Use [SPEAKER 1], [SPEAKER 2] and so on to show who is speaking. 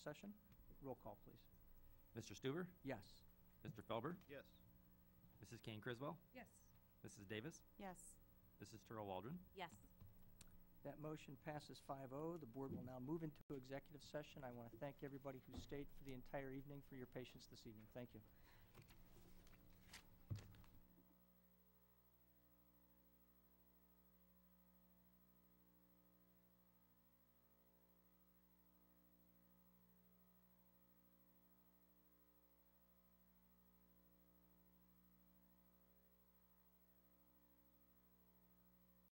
[SPEAKER 1] session. Roll call, please.
[SPEAKER 2] Mr. Stuber,
[SPEAKER 1] Yes.
[SPEAKER 2] Mr. Felber,
[SPEAKER 3] Yes.
[SPEAKER 2] Mrs. Kane Criswell,
[SPEAKER 4] Yes.
[SPEAKER 2] Mrs. Davis,
[SPEAKER 4] Yes.
[SPEAKER 2] Mrs. Turl Waldron.
[SPEAKER 4] Yes.
[SPEAKER 1] That motion passes 5-0. The board will now move into executive session. I want to thank everybody who stayed for the entire evening for your patience this evening. Thank you.